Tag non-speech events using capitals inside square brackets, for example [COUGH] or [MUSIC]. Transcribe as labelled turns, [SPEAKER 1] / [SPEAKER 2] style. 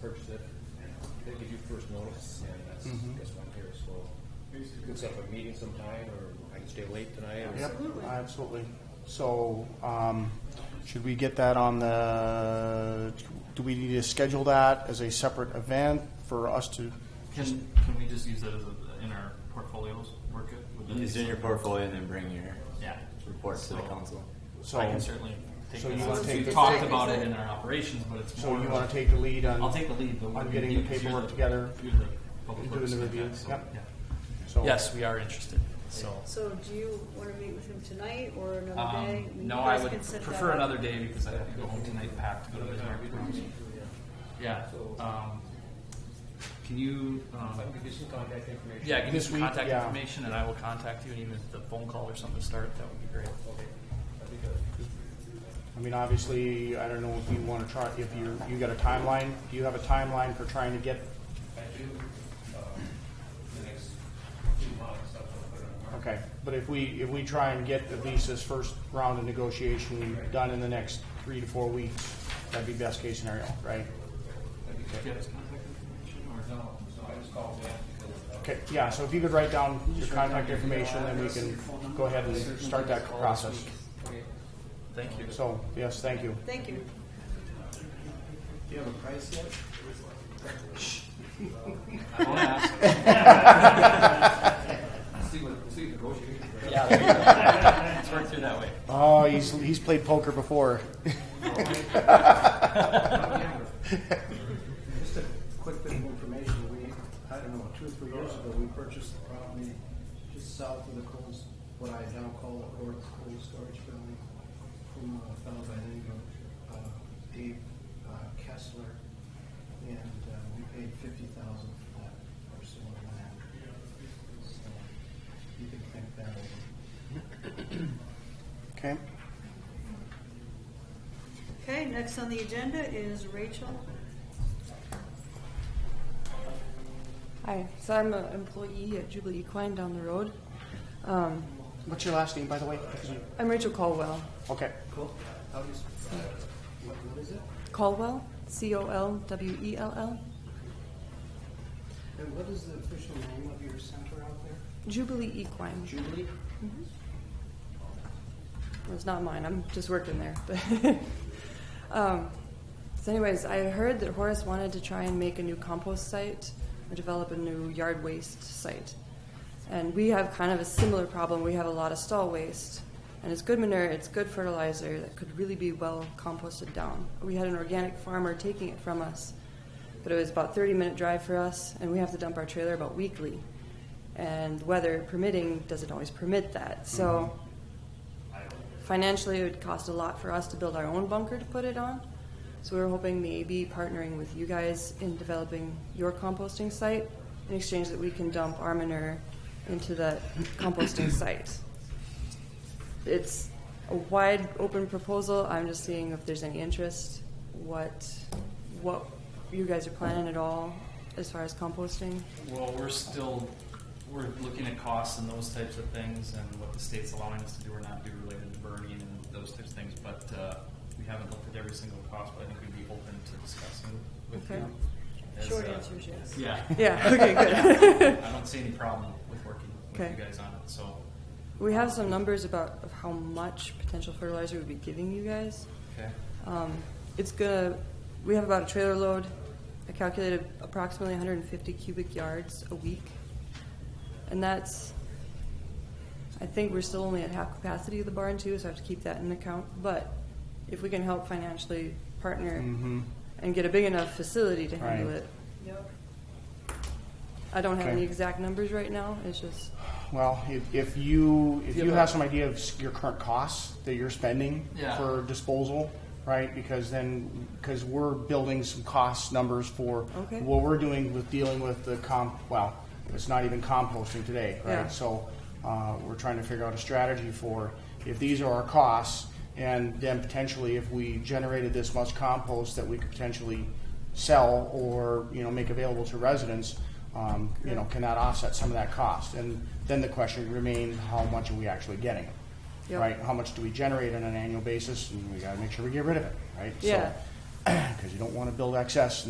[SPEAKER 1] purchase it, they give you first notice, and that's, that's why I'm here, so. We can set up a meeting sometime, or I can stay late tonight, or.
[SPEAKER 2] Yep, absolutely. So, um, should we get that on the, do we need to schedule that as a separate event for us to?
[SPEAKER 3] Can, can we just use that as a, in our portfolios? Work it? Would that be
[SPEAKER 4] It's in your
[SPEAKER 3] something?
[SPEAKER 4] portfolio and then bring your
[SPEAKER 3] Yeah.
[SPEAKER 4] reports to the
[SPEAKER 3] So,
[SPEAKER 4] council.
[SPEAKER 2] So,
[SPEAKER 3] I can certainly take
[SPEAKER 2] so
[SPEAKER 3] this.
[SPEAKER 2] you wanna
[SPEAKER 3] since
[SPEAKER 2] take
[SPEAKER 3] We've
[SPEAKER 2] this-
[SPEAKER 3] talked about it in our operations, but it's
[SPEAKER 2] so
[SPEAKER 3] more.
[SPEAKER 2] you wanna take the lead on?
[SPEAKER 3] I'll take the lead, but.
[SPEAKER 2] on
[SPEAKER 3] we-
[SPEAKER 2] getting the
[SPEAKER 3] because you're
[SPEAKER 2] paperwork together
[SPEAKER 3] You're the public
[SPEAKER 2] and
[SPEAKER 3] works
[SPEAKER 2] doing the
[SPEAKER 3] guy,
[SPEAKER 2] review.
[SPEAKER 3] so,
[SPEAKER 2] Yep.
[SPEAKER 3] yeah.
[SPEAKER 2] so-
[SPEAKER 3] Yes, we are interested, so.
[SPEAKER 5] So do you want to meet with him tonight or another day?
[SPEAKER 3] Um,
[SPEAKER 5] mean,
[SPEAKER 3] no,
[SPEAKER 5] you
[SPEAKER 3] I
[SPEAKER 5] guys
[SPEAKER 3] would
[SPEAKER 5] can set that
[SPEAKER 3] prefer
[SPEAKER 5] up.
[SPEAKER 3] another day because I have to go home tonight packed to go to Bismarck. Yeah, um, can you,
[SPEAKER 1] If
[SPEAKER 3] um,
[SPEAKER 1] I can get some contact information.
[SPEAKER 3] yeah, give me
[SPEAKER 2] This
[SPEAKER 3] some
[SPEAKER 2] week,
[SPEAKER 3] contact
[SPEAKER 2] yeah.
[SPEAKER 3] information and I will contact you and even if the phone call or something to start, that would be great.
[SPEAKER 2] I mean, obviously, I don't know if you wanna try, if you, you got a timeline, do you have a timeline for trying to get?
[SPEAKER 1] I do, um, the next two months, I'll put it on the market.
[SPEAKER 2] Okay, but if we, if we try and get at least this first round of negotiation done in the next three to four weeks, that'd be best case scenario, right?
[SPEAKER 3] Do you have his contact information or?
[SPEAKER 1] No, so I just called back because of
[SPEAKER 2] Okay, yeah, so if you could write down your contact information, then we can go ahead and start that process.
[SPEAKER 3] Thank you.
[SPEAKER 2] So, yes, thank you.
[SPEAKER 5] Thank you.
[SPEAKER 3] I won't ask.
[SPEAKER 1] See what, see what negotiations. are.
[SPEAKER 3] Yeah. there you go. Let's work through that way.
[SPEAKER 2] Oh, he's, he's played poker before.
[SPEAKER 6] Just a quick bit of information, we, I don't know, two or three years ago, we purchased the property just south of the Coles, what I now call the Coles, Coles Storage Building, from uh, a fellow by the name of uh, Dave uh, Kessler, and uh, we paid fifty thousand for that parcel of land. So, you can think that over.
[SPEAKER 2] Okay,
[SPEAKER 5] Okay, next on the agenda is Rachel.
[SPEAKER 7] Hi, so I'm an employee at Jubilee Equine down the road. Um,
[SPEAKER 2] what's your last name, by the way?
[SPEAKER 7] I'm Rachel Caldwell.
[SPEAKER 2] Okay,
[SPEAKER 6] Cool, how do you, sp- what, what is it?
[SPEAKER 7] Caldwell, C O L W E L L.
[SPEAKER 6] And what is the official name of your center out there?
[SPEAKER 7] Jubilee Equine.
[SPEAKER 6] Jubilee?
[SPEAKER 7] It's not mine, I'm just working there. [LAUGHS] But um, so, anyways, I heard that Horace wanted to try and make a new compost site or develop a new yard waste site. And we have kind of a similar problem. We have a lot of stall waste. And it's good manure, it's good fertilizer that could really be well composted down. We had an organic farmer taking it from us, but it was about 30 minute drive for us, and we have to dump our trailer about weekly. And weather permitting doesn't always permit that. So financially, it would cost a lot for us to build our own bunker to put it on. So we were hoping maybe partnering with you guys in developing your composting site in exchange that we can dump our manure into that composting site. It's a wide open proposal. I'm just seeing if there's any interest, what, what you guys are planning at all as far as composting.
[SPEAKER 3] Well, we're still, we're looking at costs and those types of things and what the state's allowing us to do or not do related to burning and those types of things, but, uh, we haven't looked at every single cost, but I think we'd be open to discussing with
[SPEAKER 7] Okay.
[SPEAKER 3] you. as,
[SPEAKER 5] Short
[SPEAKER 3] uh,
[SPEAKER 5] answer is yes.
[SPEAKER 3] Yeah.
[SPEAKER 7] [LAUGHS] Yeah, okay, good.
[SPEAKER 3] I don't see any problem with working with
[SPEAKER 7] Okay.
[SPEAKER 3] you guys on it, so,
[SPEAKER 7] We have some numbers about of how much potential fertilizer we'd be giving you guys.
[SPEAKER 3] okay.
[SPEAKER 7] Um, it's gonna, we have about a trailer load. I calculated approximately 150 cubic yards a week. And that's, I think we're still only at half capacity of the barn too, so I have to keep that in account. But if we can help financially partner and get a big enough facility to handle
[SPEAKER 2] Mm-hmm. Right.
[SPEAKER 7] it.
[SPEAKER 5] Yep.
[SPEAKER 7] I don't have any
[SPEAKER 2] Okay.
[SPEAKER 7] exact numbers right now, it's just,
[SPEAKER 2] well, if, if you, if you have some idea of s- your current costs that you're spending
[SPEAKER 3] Yeah.
[SPEAKER 2] for disposal, right? Because then, because we're building some cost numbers for
[SPEAKER 7] Okay.
[SPEAKER 2] what we're doing with dealing with the comp, well, it's not even composting today,
[SPEAKER 7] Yeah.
[SPEAKER 2] right? So, uh, we're trying to figure out a strategy for, if these are our costs, and then potentially if we generated this much compost that we could potentially sell or, you know, make available to residents, um, you know, can that offset some of that cost? And then the question remains, how much are we actually getting?
[SPEAKER 7] Yep.
[SPEAKER 2] Right? How much do we generate on an annual basis? And we gotta make sure we get rid of it, right?
[SPEAKER 7] yeah.
[SPEAKER 2] [CLEARS THROAT] Because you don't wanna build excess